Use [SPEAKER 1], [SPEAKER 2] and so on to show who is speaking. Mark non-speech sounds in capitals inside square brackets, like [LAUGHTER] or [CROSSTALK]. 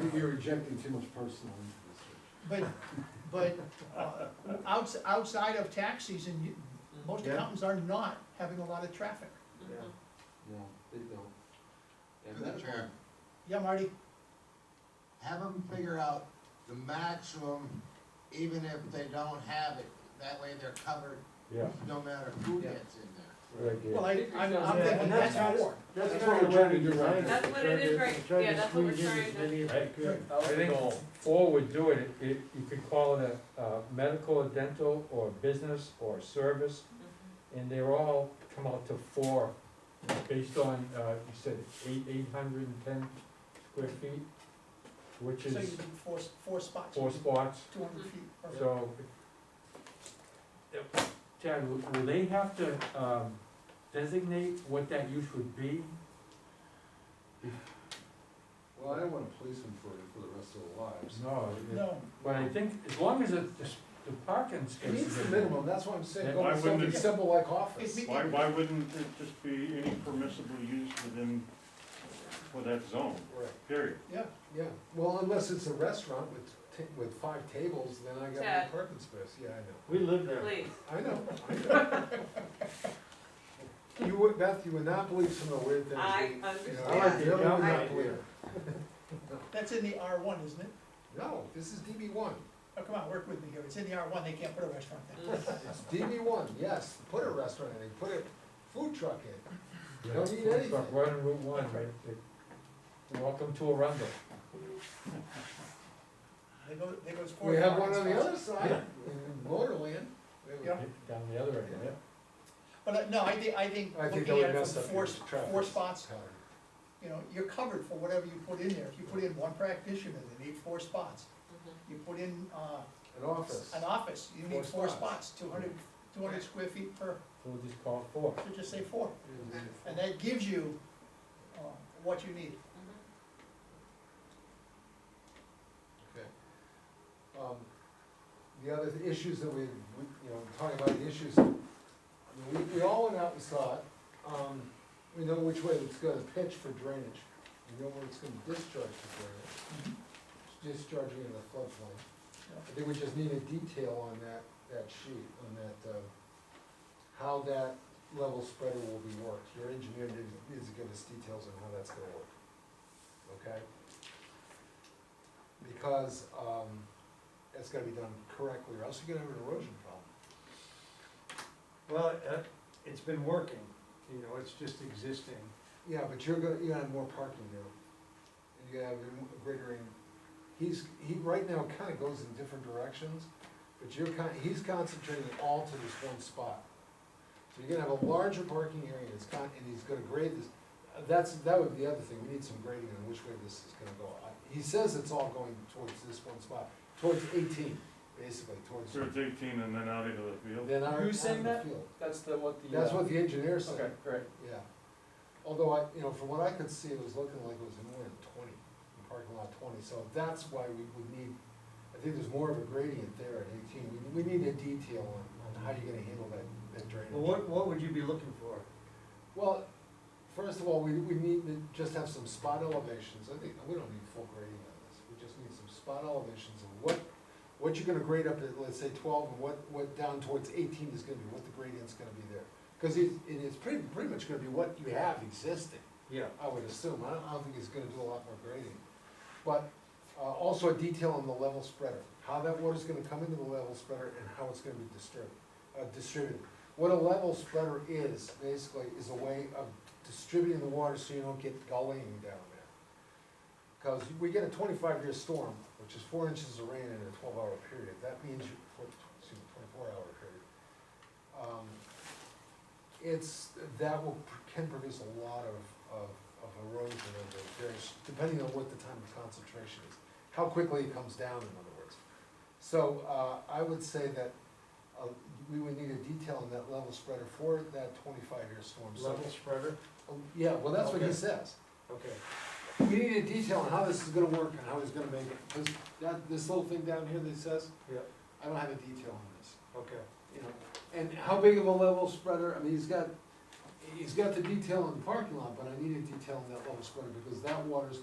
[SPEAKER 1] think you're injecting too much personal into this. Rich.
[SPEAKER 2] But, but, uh, outs, outside of tax season, you, most
[SPEAKER 1] Yeah.
[SPEAKER 2] accountants are not having a lot of traffic.
[SPEAKER 1] Yeah. No, they don't. And
[SPEAKER 3] Through the
[SPEAKER 1] that-
[SPEAKER 3] chair,
[SPEAKER 2] Yeah, Marty?
[SPEAKER 3] have them figure out the maximum, even if they don't have it, that way they're covered,
[SPEAKER 4] Yeah,
[SPEAKER 3] no matter who
[SPEAKER 1] Yeah.
[SPEAKER 3] gets in there.
[SPEAKER 4] right there.
[SPEAKER 2] Well, I, I'm, I'm
[SPEAKER 1] Yeah,
[SPEAKER 2] thinking
[SPEAKER 1] and
[SPEAKER 2] that's
[SPEAKER 1] that's
[SPEAKER 4] how-
[SPEAKER 2] four.
[SPEAKER 1] That's what we're trying to do right now.
[SPEAKER 5] That's what it is, right, yeah, that's what we're trying to,
[SPEAKER 4] I think all we're doing, it, it, you could call it a, uh, medical or dental or business or service, and they're all come out to four, based on, uh, you said eight, eight hundred and ten square feet, which
[SPEAKER 2] So you
[SPEAKER 4] is
[SPEAKER 2] need four, four spots.
[SPEAKER 4] four spots,
[SPEAKER 2] Two hundred feet. or-
[SPEAKER 4] so. Yep. Chad, will, will they have to, um, designate what that use would be?
[SPEAKER 1] Well, I don't wanna police them for, for the rest of their lives.
[SPEAKER 4] No, it-
[SPEAKER 2] No,
[SPEAKER 4] But I think as long as it, the s- the parking
[SPEAKER 1] It
[SPEAKER 4] space
[SPEAKER 1] needs
[SPEAKER 4] is.
[SPEAKER 1] the minimum, that's what I'm saying,
[SPEAKER 4] Yeah.
[SPEAKER 1] go
[SPEAKER 6] Why
[SPEAKER 1] with
[SPEAKER 6] wouldn't
[SPEAKER 1] something
[SPEAKER 2] it-
[SPEAKER 1] simple like
[SPEAKER 2] It
[SPEAKER 1] office.
[SPEAKER 2] mean-
[SPEAKER 6] Why, why wouldn't it just be any permissible use within, for that zone,
[SPEAKER 1] Right.
[SPEAKER 6] period?
[SPEAKER 2] yeah,
[SPEAKER 1] Yeah, well, unless it's a restaurant with, ta- with five tables, then
[SPEAKER 3] Mm-hmm.
[SPEAKER 1] I got
[SPEAKER 5] Chad.
[SPEAKER 1] no parking space, yeah, I
[SPEAKER 4] We live
[SPEAKER 5] please,
[SPEAKER 1] know. I know, I know. [LAUGHS] You would, Beth, you would not believe some of the weird things.
[SPEAKER 5] I
[SPEAKER 1] we- you know,
[SPEAKER 5] understand.
[SPEAKER 1] I really would
[SPEAKER 4] Yeah.
[SPEAKER 1] not believe.
[SPEAKER 2] that's in the R one, isn't it?
[SPEAKER 1] No, this is DB one,
[SPEAKER 2] Oh, come on, work with me here, it's in the R one, they can't put a restaurant
[SPEAKER 5] Mm-hmm.
[SPEAKER 2] there.
[SPEAKER 1] it's DB one, yes, put a restaurant in, put a food truck in, you don't need anything.
[SPEAKER 4] Right on Route one, right, the- welcome to Arundel.
[SPEAKER 2] They go, they go as four.
[SPEAKER 1] We have one
[SPEAKER 2] parking
[SPEAKER 1] on the
[SPEAKER 2] spots.
[SPEAKER 1] other side, in Motorland. We have a-
[SPEAKER 2] Yeah.
[SPEAKER 4] Down the other end, yeah.
[SPEAKER 2] But, uh, no, I thi- I think,
[SPEAKER 1] I think that
[SPEAKER 2] looking
[SPEAKER 1] would
[SPEAKER 2] at it
[SPEAKER 1] mess
[SPEAKER 2] from
[SPEAKER 1] up
[SPEAKER 2] four,
[SPEAKER 1] your
[SPEAKER 2] s-
[SPEAKER 1] traffic.
[SPEAKER 2] four spots,
[SPEAKER 1] pattern.
[SPEAKER 2] you know, you're covered for whatever you put in there. If you put in one practitioner, they need four spots. You put in, uh,
[SPEAKER 1] An office.
[SPEAKER 2] an office, you need
[SPEAKER 1] Four
[SPEAKER 2] four
[SPEAKER 1] spots.
[SPEAKER 2] spots, two hundred, two hundred square feet per,
[SPEAKER 4] So we'll just call it four.
[SPEAKER 2] so just say four.
[SPEAKER 1] And-
[SPEAKER 2] And that gives you, uh, what you need.
[SPEAKER 5] Mm-hmm.
[SPEAKER 1] Okay. Um, The other th- issues that we, we, you know, talking about the issues, I mean, we, we all went out and saw it. Um, We know which way it's gonna pitch for drainage, we know where it's gonna discharge for drainage,
[SPEAKER 2] Mm-hmm.
[SPEAKER 1] It's discharging in the floodplain. I think we just need a detail on that, that sheet, on that, uh, how that level spreader will be worked. Your engineer needs, needs to give us details on how that's gonna work, okay? because, um, it's gotta be done correctly, or else you're gonna have an erosion problem.
[SPEAKER 7] Well, it- it's been working, you know, it's just existing.
[SPEAKER 1] Yeah, but you're gonna, you're gonna have more parking there, and you're gonna have a greater, in- he's, he, right now, kinda goes in different directions, but you're kind, he's concentrating all to this one spot. So you're gonna have a larger parking area, it's con, and he's gonna grade this, uh, that's, that would be the other thing, we need some grading on which way this is gonna go. I- He says it's all going towards this one spot, towards eighteen, basically, towards.
[SPEAKER 6] So it's eighteen and then out into the field?
[SPEAKER 1] Then our, out
[SPEAKER 4] Who's saying
[SPEAKER 1] in the
[SPEAKER 4] that?
[SPEAKER 1] field.
[SPEAKER 4] That's the, what the.
[SPEAKER 1] That's what the engineer said,
[SPEAKER 4] great.
[SPEAKER 1] yeah. Although I, you know, from what I could see, it was looking like it was more than twenty, the parking lot twenty, so that's why we would need, I think there's more of a gradient there at eighteen. We, we need a detail on, on how you're gonna handle that, that drainage.
[SPEAKER 7] Well, what, what would you be looking for?
[SPEAKER 1] Well, first of all, we, we need to just have some spot elevations, I think, we don't need full grading on this, we just need some spot elevations of what, what you're gonna grade up at, let's say twelve, and what, what down towards eighteen is gonna be, what the gradient's gonna be there. Cause it, it is pretty, pretty much gonna be what you have existing,
[SPEAKER 7] Yeah.
[SPEAKER 1] I would assume, I don't, I don't think it's gonna do a lot more grading. But, uh, also a detail on the level spreader, how that water's gonna come into the level spreader and how it's gonna be disturbed, uh, distributed. What a level spreader is, basically, is a way of distributing the water so you don't get gullying down there. Cause we get a twenty-five year storm, which is four inches of rain in a twelve hour period, that means, you- four- excuse me, twenty-four hour period. Um, It's, that will, can produce a lot of, of, of erosion and there's, depending on what the time of concentration is, how quickly it comes down, in other words. So, uh, I would say that, uh, we would need a detail on that level spreader for that twenty-five year storm. So-
[SPEAKER 7] Level spreader?
[SPEAKER 1] Oh, Yeah, well, that's what he
[SPEAKER 7] Okay.
[SPEAKER 1] says.
[SPEAKER 7] Okay.
[SPEAKER 1] We need a detail on how this is gonna work and how he's gonna make it, because that, this little thing down here that says,
[SPEAKER 7] Yeah,
[SPEAKER 1] I don't have a detail on this,
[SPEAKER 7] okay.
[SPEAKER 1] you know? And how big of a level spreader, I mean, he's got, he's got the detail in the parking lot, but I need a detail on that level spreader, because that water's